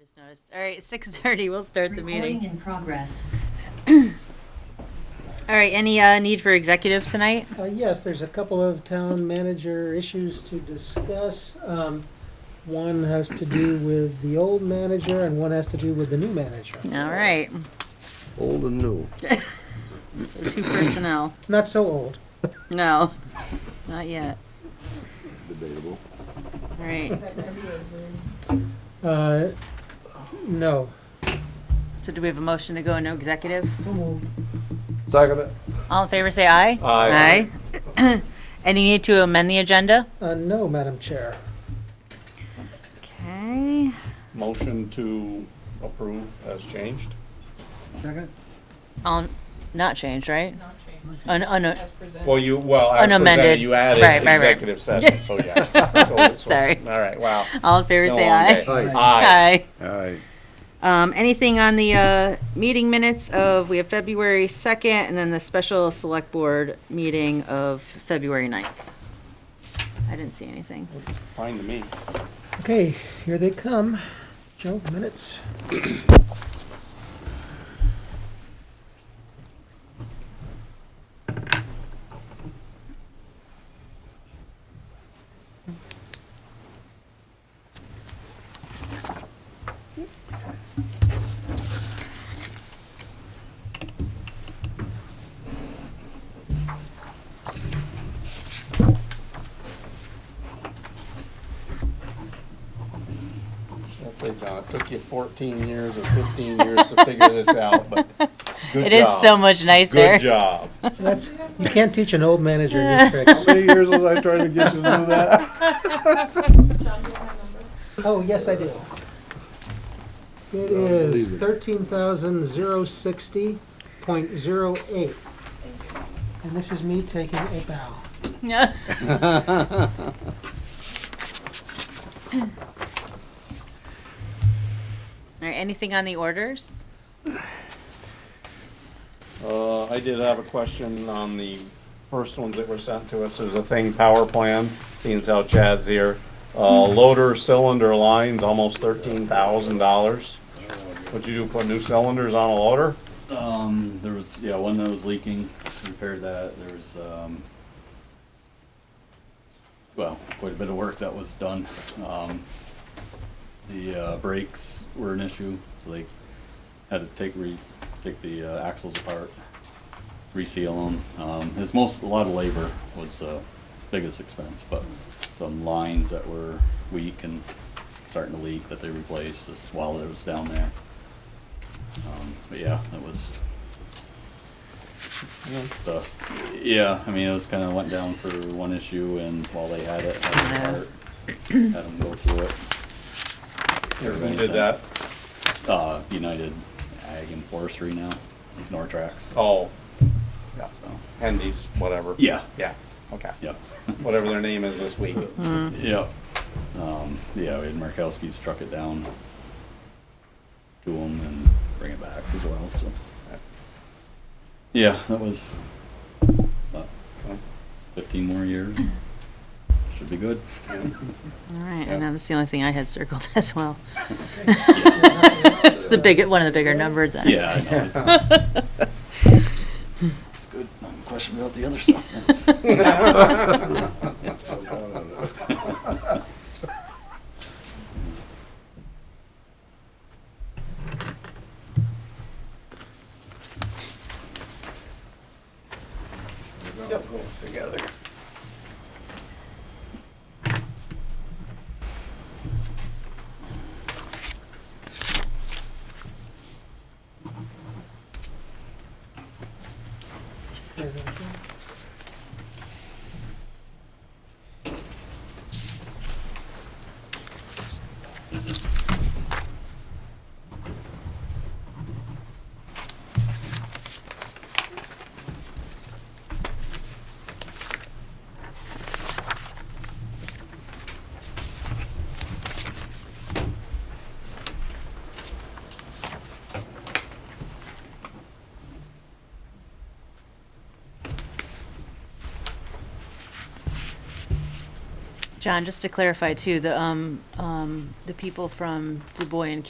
just noticed. All right, six thirty. We'll start the Recording meeting. in progress. All right. Any uh, need for executive tonight? Uh, Yes, there's a couple of town manager issues to discuss. Um, One has to do with the old manager and one has to do with the new manager. All right. Old and new. So two personnel. Not so old. No, not yet. Debatable. All right. Uh, No. So do we have a motion to go into executive? Second it. All in favor, say aye. Aye. Aye. Any need to amend the agenda? Uh, No, Madam Chair. Okay. Motion to approve as changed? Second? All not changed, right? Oh, Not changed. Un, un, Well, you, well, as Unamended. presented, you added Right, right, right. executive session, so yes. So it's- Sorry. All right, wow. all in favor, Been a say long aye. day. Aye. Aye. Aye. Um, anything on the, uh, meeting minutes of, we have February second, and then the special select board meeting of February 9th. I didn't see anything. Fine to me. Okay, here they come. Joe, minutes. I'll say, John, it took you 14 years or 15 years to figure this out, but good It is job. so much nicer. Good job. That's, you can't teach an old manager new tricks. How many years was I trying to get you to do that? Oh, yes, I do. It is thirteen thousand zero sixty point zero eight. And this is me taking a bow. No. All right, anything on the orders? Uh, I did have a question on the first ones that were sent to us. There's a thing, power plan, seeing as how Chad's here. Uh, loader cylinder lines, almost thirteen thousand dollars. What'd you do, put new cylinders on a loader? Um, there was, yeah, one that was leaking, repaired that, there was, um, well, quite a bit of work that was done. Um, the, uh, brakes were an issue, so they had to take, re, take the uh, axles apart, reseal them. Um, it's most, a lot of labor was, uh, biggest expense, but some lines that were weak and starting to leak that they replaced just while it was down there. Um, but yeah, that was. So, yeah, I mean, it was kind of went down for one issue, and while they had it, had it apart, had them go through it. Who did that? Uh, United Ag and Forestry now, Nortrax. Oh, yeah. Hendy's, whatever. Yeah, Yeah, okay. yep, Whatever their name is this week. Mm-hmm. yep. Um, yeah, we had Markowski struck it down to them and bring it back as well, so. Yeah, that was, what, Okay. fifteen more years. Should be good. All right, Yeah. and that's the only thing I had circled as well. It's the big, one of the bigger numbers. I- Yeah, I know. It's- It's good. I'm questioning about the other stuff. then. John, just to clarify too, the, um, um, the people from Du Bois and